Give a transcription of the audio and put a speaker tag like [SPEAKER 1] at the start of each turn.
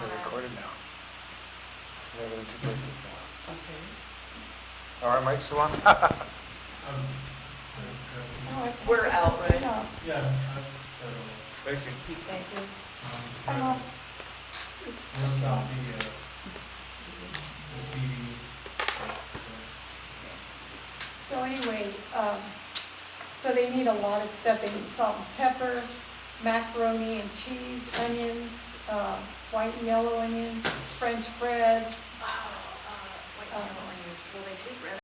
[SPEAKER 1] two places now.
[SPEAKER 2] Okay.
[SPEAKER 1] All right, Mike Salon?
[SPEAKER 3] Um, uh,
[SPEAKER 2] No, I-
[SPEAKER 4] We're out, right?
[SPEAKER 2] No,
[SPEAKER 3] Yeah, I, uh,
[SPEAKER 1] Thank you.
[SPEAKER 4] Thank you.
[SPEAKER 3] um,
[SPEAKER 2] I
[SPEAKER 3] trying
[SPEAKER 2] lost- it's-
[SPEAKER 3] to, what's not the, uh, the TV, uh,
[SPEAKER 2] So anyway, um, so they need a lot of stuff, they need salt and pepper, macaroni and cheese, onions, uh, white and yellow onions, French bread,
[SPEAKER 4] Wow, uh, wait, I don't know, where you- will they take red